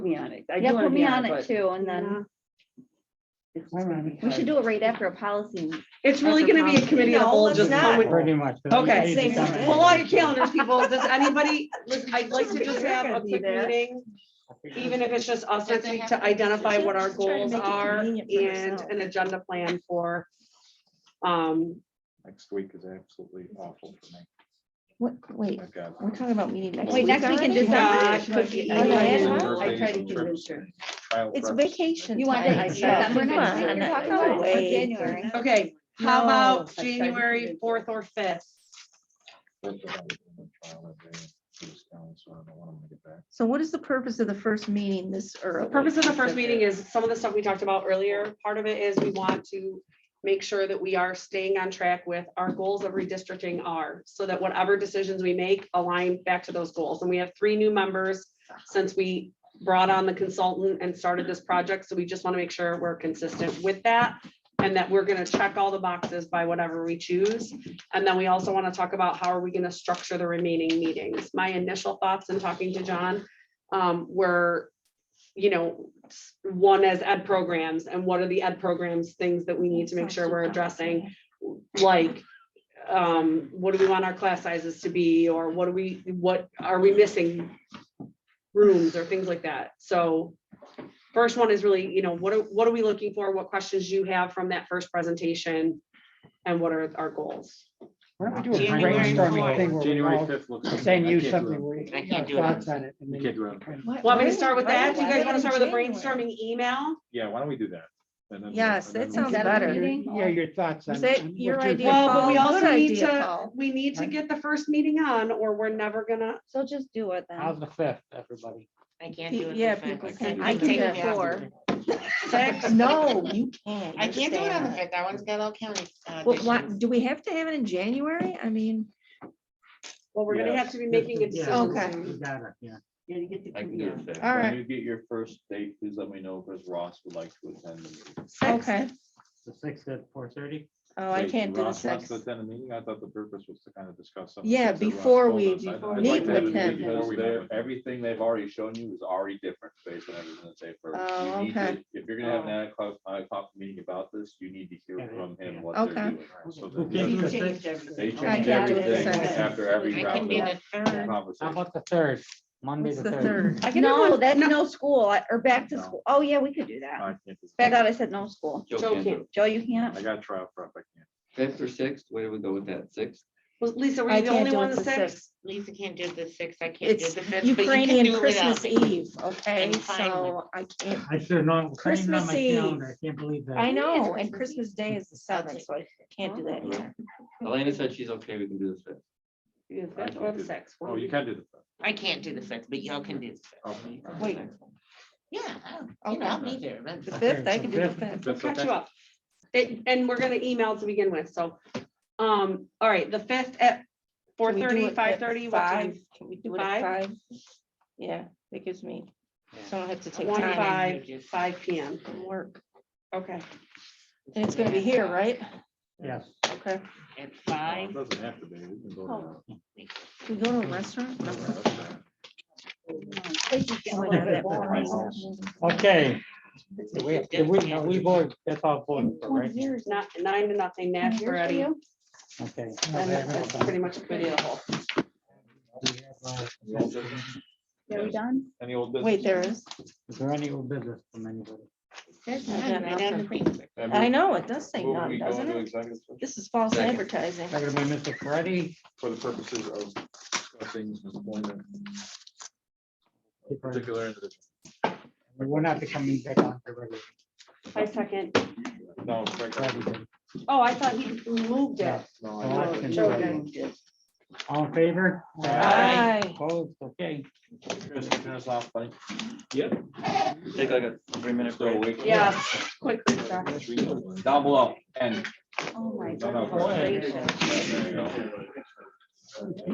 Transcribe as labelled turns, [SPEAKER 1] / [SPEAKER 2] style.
[SPEAKER 1] me on it. I do
[SPEAKER 2] Yeah,
[SPEAKER 1] wanna
[SPEAKER 2] put
[SPEAKER 1] be
[SPEAKER 2] me on it
[SPEAKER 1] but
[SPEAKER 2] too, and then
[SPEAKER 1] it's just gonna be
[SPEAKER 2] we should
[SPEAKER 1] hard.
[SPEAKER 2] do it right after policy.
[SPEAKER 1] It's really gonna be a committee of the
[SPEAKER 3] No,
[SPEAKER 1] whole,
[SPEAKER 3] let's
[SPEAKER 1] just
[SPEAKER 3] not.
[SPEAKER 1] come with
[SPEAKER 4] Pretty much.
[SPEAKER 1] Okay.
[SPEAKER 3] Same
[SPEAKER 1] Alright.
[SPEAKER 3] thing.
[SPEAKER 1] Pull out your calendars, people. Does anybody, listen, I'd like to just have a quick meeting, even if it's just us this week, to identify what our goals are and an agenda plan for. Um,
[SPEAKER 5] Next week is absolutely awful for me.
[SPEAKER 6] What, wait,
[SPEAKER 5] I've got-
[SPEAKER 6] we're talking about meeting next
[SPEAKER 2] Wait,
[SPEAKER 6] week.
[SPEAKER 2] next week in
[SPEAKER 6] already?
[SPEAKER 1] uh,
[SPEAKER 2] December?
[SPEAKER 1] it could be-
[SPEAKER 2] Oh, yeah, yeah.
[SPEAKER 1] I tried to convince her.
[SPEAKER 5] trial
[SPEAKER 6] It's
[SPEAKER 5] prep.
[SPEAKER 6] vacation.
[SPEAKER 2] You want
[SPEAKER 6] time.
[SPEAKER 2] to,
[SPEAKER 1] said-
[SPEAKER 2] yeah, we're
[SPEAKER 6] Come
[SPEAKER 2] not,
[SPEAKER 6] on.
[SPEAKER 2] you're talking
[SPEAKER 6] No
[SPEAKER 2] about
[SPEAKER 6] way.
[SPEAKER 2] January.
[SPEAKER 1] Okay, how
[SPEAKER 2] No.
[SPEAKER 1] about
[SPEAKER 2] That's right, we
[SPEAKER 1] January
[SPEAKER 2] did.
[SPEAKER 1] fourth or fifth?
[SPEAKER 5] Trial that day, it was down, so I don't know when I'm gonna get back.
[SPEAKER 6] So what is the purpose of the first meeting this early?
[SPEAKER 1] The purpose of the first meeting is some of the stuff we talked about earlier. Part of it is we want to make sure that we are staying on track with our goals of redistricting are, so that whatever decisions we make align back to those goals. And we have three new members since we brought on the consultant and started this project. So we just want to make sure we're consistent with that and that we're going to check all the boxes by whatever we choose. And then we also want to talk about how are we going to structure the remaining meetings. My initial thoughts in talking to John um, were you know, s- one as ed programs and what are the ed programs, things that we need to make sure we're addressing? Like, um, what do we want our class sizes to be, or what do we, what are we missing? Rooms or things like that. So first one is really, you know, what are, what are we looking for? What questions you have from that first presentation? And what are our goals?
[SPEAKER 4] Why don't we do a
[SPEAKER 7] January
[SPEAKER 4] brainstorming
[SPEAKER 7] fourth.
[SPEAKER 4] thing where we
[SPEAKER 5] January
[SPEAKER 4] all
[SPEAKER 5] fifth looks.
[SPEAKER 4] send you
[SPEAKER 5] I can't do
[SPEAKER 4] something
[SPEAKER 5] it.
[SPEAKER 4] where you
[SPEAKER 7] I
[SPEAKER 4] your
[SPEAKER 7] can't do it on-
[SPEAKER 4] thoughts on it. and
[SPEAKER 5] You
[SPEAKER 4] then
[SPEAKER 5] can't
[SPEAKER 4] you
[SPEAKER 5] do it on
[SPEAKER 4] can-
[SPEAKER 6] What-
[SPEAKER 1] Want me to
[SPEAKER 6] why-
[SPEAKER 1] start with
[SPEAKER 6] why-
[SPEAKER 1] that? Do you
[SPEAKER 6] why
[SPEAKER 1] guys want to
[SPEAKER 6] in
[SPEAKER 1] start with a
[SPEAKER 6] Oh, January?
[SPEAKER 1] brainstorming email?
[SPEAKER 5] Yeah, why don't we do that? And then-
[SPEAKER 6] Yes,
[SPEAKER 5] and
[SPEAKER 6] that
[SPEAKER 5] then-
[SPEAKER 6] sounds
[SPEAKER 2] Is that a
[SPEAKER 6] better.
[SPEAKER 2] meeting?
[SPEAKER 4] Yeah, your thoughts on.
[SPEAKER 6] Is that
[SPEAKER 4] on what
[SPEAKER 6] your
[SPEAKER 4] you're
[SPEAKER 6] idea,
[SPEAKER 4] thinking.
[SPEAKER 1] Well, but we
[SPEAKER 6] Paul.
[SPEAKER 1] also
[SPEAKER 6] Good
[SPEAKER 1] need
[SPEAKER 6] idea,
[SPEAKER 1] to,
[SPEAKER 6] Paul.
[SPEAKER 1] we need to get the first meeting on or we're never gonna,
[SPEAKER 2] So just do it
[SPEAKER 4] How's
[SPEAKER 2] then.
[SPEAKER 4] the fifth, everybody?
[SPEAKER 7] I can't do it.
[SPEAKER 6] Yeah,
[SPEAKER 7] for five.
[SPEAKER 6] people
[SPEAKER 7] can't
[SPEAKER 6] can-
[SPEAKER 7] do
[SPEAKER 6] I
[SPEAKER 7] it
[SPEAKER 6] can
[SPEAKER 7] for
[SPEAKER 6] do it
[SPEAKER 7] five.
[SPEAKER 6] four.
[SPEAKER 1] Six.
[SPEAKER 6] No, you can't.
[SPEAKER 7] I can't do it on the
[SPEAKER 6] understand.
[SPEAKER 7] fifth. That one's got all county. uh,
[SPEAKER 6] Well, why,
[SPEAKER 7] additions.
[SPEAKER 6] do we have to have it in January? I mean,
[SPEAKER 1] well, we're gonna have to be making a decision
[SPEAKER 6] Okay.
[SPEAKER 1] soon.
[SPEAKER 4] You got it, yeah.
[SPEAKER 8] I can do it. fifth.
[SPEAKER 6] All right.
[SPEAKER 8] When you get your first date, please let me know because Ross would like to attend. the meeting.
[SPEAKER 6] okay.
[SPEAKER 3] The sixth at four thirty?
[SPEAKER 6] Oh, I
[SPEAKER 8] Wait,
[SPEAKER 6] can't do the
[SPEAKER 8] Ross wants
[SPEAKER 6] sixth.
[SPEAKER 8] to attend the meeting? I thought the purpose was to kind of discuss some. of the
[SPEAKER 6] Yeah,
[SPEAKER 8] things that Ross
[SPEAKER 6] before
[SPEAKER 8] told
[SPEAKER 6] we-
[SPEAKER 8] us. I'd-
[SPEAKER 6] before
[SPEAKER 8] I'd
[SPEAKER 6] we
[SPEAKER 8] like
[SPEAKER 6] meet
[SPEAKER 8] to have
[SPEAKER 6] with
[SPEAKER 8] it
[SPEAKER 6] him.
[SPEAKER 8] Because
[SPEAKER 5] Before we
[SPEAKER 8] they're-
[SPEAKER 5] meet with him.
[SPEAKER 8] everything they've already shown you is already different based on everything that they've heard.
[SPEAKER 6] Oh,
[SPEAKER 8] You need to-
[SPEAKER 6] okay.
[SPEAKER 8] If you're gonna have an ad hoc, ad hoc meeting about this, you need to
[SPEAKER 4] Yeah,
[SPEAKER 8] hear from
[SPEAKER 4] yeah.
[SPEAKER 8] him what they're
[SPEAKER 6] Okay.
[SPEAKER 8] doing. so
[SPEAKER 4] Who
[SPEAKER 8] that-
[SPEAKER 4] can do the sixth?
[SPEAKER 8] They
[SPEAKER 6] I
[SPEAKER 8] change
[SPEAKER 6] can't do the
[SPEAKER 8] everything
[SPEAKER 6] sixth.
[SPEAKER 8] after every
[SPEAKER 7] I can
[SPEAKER 8] round
[SPEAKER 7] be
[SPEAKER 8] of
[SPEAKER 7] the third.
[SPEAKER 4] How
[SPEAKER 8] conversation.
[SPEAKER 4] about the third, Monday
[SPEAKER 6] What's
[SPEAKER 4] the
[SPEAKER 6] the
[SPEAKER 4] third?
[SPEAKER 6] third?
[SPEAKER 1] I can do
[SPEAKER 2] No,
[SPEAKER 1] one-
[SPEAKER 2] that's
[SPEAKER 1] no,
[SPEAKER 2] no school I- or back to
[SPEAKER 8] No.
[SPEAKER 2] school. Oh, yeah, we could do that.
[SPEAKER 8] I can't do-
[SPEAKER 2] I thought I said no school.
[SPEAKER 8] Joe
[SPEAKER 1] Joe
[SPEAKER 8] can do
[SPEAKER 1] can't.
[SPEAKER 8] it.
[SPEAKER 2] Joe, you can't?
[SPEAKER 8] I got trial prep, I can't.
[SPEAKER 9] Fifth or sixth, where do we go with that? Sixth?
[SPEAKER 1] Was Lisa, were
[SPEAKER 6] I
[SPEAKER 1] you the
[SPEAKER 6] can't
[SPEAKER 1] only
[SPEAKER 6] do
[SPEAKER 1] one
[SPEAKER 6] it
[SPEAKER 1] that
[SPEAKER 6] the
[SPEAKER 1] said?
[SPEAKER 6] sixth.
[SPEAKER 7] Lisa can't do the sixth. I can't do
[SPEAKER 6] It's
[SPEAKER 7] the fifth. but you can do
[SPEAKER 6] Ukrainian
[SPEAKER 7] it without
[SPEAKER 6] Christmas
[SPEAKER 7] me.
[SPEAKER 6] Eve, okay?
[SPEAKER 7] I'm fine with-
[SPEAKER 6] So I can't,
[SPEAKER 4] I should have known. I didn't have
[SPEAKER 6] Christmas
[SPEAKER 4] my
[SPEAKER 6] Eve.
[SPEAKER 4] calendar. I can't believe that.
[SPEAKER 6] I know, and
[SPEAKER 7] Christmas Eve.
[SPEAKER 6] Christmas Day is the
[SPEAKER 7] I'll
[SPEAKER 6] seventh,
[SPEAKER 7] take
[SPEAKER 6] so I can't do that either.
[SPEAKER 9] Elena said she's okay, we can do this fifth.
[SPEAKER 1] Yeah,
[SPEAKER 8] I
[SPEAKER 1] that's
[SPEAKER 8] can
[SPEAKER 1] Or
[SPEAKER 8] do
[SPEAKER 1] the
[SPEAKER 8] that.
[SPEAKER 1] sixth.
[SPEAKER 8] Oh, you can do the. fifth.
[SPEAKER 7] I can't do the fifth, but y'all can do. the fifth.
[SPEAKER 8] Okay.
[SPEAKER 6] Wait.
[SPEAKER 7] Yeah, I'll- you know, I'll be there. that's
[SPEAKER 6] The
[SPEAKER 7] fine.
[SPEAKER 6] fifth, I
[SPEAKER 4] so
[SPEAKER 6] can do the
[SPEAKER 4] fifth.
[SPEAKER 6] fifth.
[SPEAKER 8] That's
[SPEAKER 1] Catch
[SPEAKER 8] okay.
[SPEAKER 1] you up. It- And we're gonna email to begin with, so, um, all right, the fifth at four
[SPEAKER 6] Can we do
[SPEAKER 1] thirty,
[SPEAKER 6] it at
[SPEAKER 1] five thirty,
[SPEAKER 6] Five, can we do it at
[SPEAKER 1] Five?
[SPEAKER 6] five? Yeah, that gives me, so I don't have to take
[SPEAKER 1] One
[SPEAKER 6] time
[SPEAKER 1] five, five P M.
[SPEAKER 6] from work.
[SPEAKER 1] Okay,
[SPEAKER 6] And it's gonna be here, right?
[SPEAKER 4] Yes.
[SPEAKER 6] Okay.
[SPEAKER 7] At
[SPEAKER 8] Well,
[SPEAKER 7] five.
[SPEAKER 8] It doesn't have to be. We can go to
[SPEAKER 6] Can we go to a restaurant?
[SPEAKER 8] the restaurant.
[SPEAKER 4] Okay. Do We, do we, no, we voted, that's all voted, for, right?
[SPEAKER 1] it's not nine to nothing,
[SPEAKER 2] Yours
[SPEAKER 1] Nash,
[SPEAKER 2] for
[SPEAKER 1] Moretti,
[SPEAKER 2] you?
[SPEAKER 4] Okay.
[SPEAKER 1] and that's pretty much a committee of the whole.
[SPEAKER 8] Any old business?
[SPEAKER 2] Are we done?
[SPEAKER 8] Any old business?
[SPEAKER 6] Wait, there is.
[SPEAKER 4] Is there any old business from anybody?
[SPEAKER 7] There's
[SPEAKER 6] I
[SPEAKER 7] none
[SPEAKER 6] got
[SPEAKER 7] right down the queen.
[SPEAKER 8] And
[SPEAKER 6] I
[SPEAKER 8] move-
[SPEAKER 6] know, it does say
[SPEAKER 8] move we
[SPEAKER 6] none,
[SPEAKER 8] go
[SPEAKER 6] doesn't
[SPEAKER 8] into
[SPEAKER 6] it?
[SPEAKER 8] executive session
[SPEAKER 6] This is false
[SPEAKER 8] Second.
[SPEAKER 6] advertising.
[SPEAKER 4] Second by Mr. Freddy.
[SPEAKER 8] For the purposes of discussing employment. of Particular. individual.
[SPEAKER 4] We're not becoming back on the regular.
[SPEAKER 1] I second.
[SPEAKER 8] No, it's right there.
[SPEAKER 1] Oh, I thought he moved it.
[SPEAKER 8] No,
[SPEAKER 4] Oh,
[SPEAKER 8] I-
[SPEAKER 4] okay.
[SPEAKER 1] Joe moved it.
[SPEAKER 4] All in favor?
[SPEAKER 6] Aye.
[SPEAKER 4] Opposed, okay.
[SPEAKER 8] Chris, turn us off, buddy.
[SPEAKER 9] Take like a three minute
[SPEAKER 8] Still
[SPEAKER 9] break.
[SPEAKER 8] awake?
[SPEAKER 1] Yeah, quick recap.
[SPEAKER 8] Down below, and.
[SPEAKER 2] Oh, my
[SPEAKER 8] No, no,
[SPEAKER 2] goodness
[SPEAKER 8] there
[SPEAKER 2] gracious.
[SPEAKER 8] you go.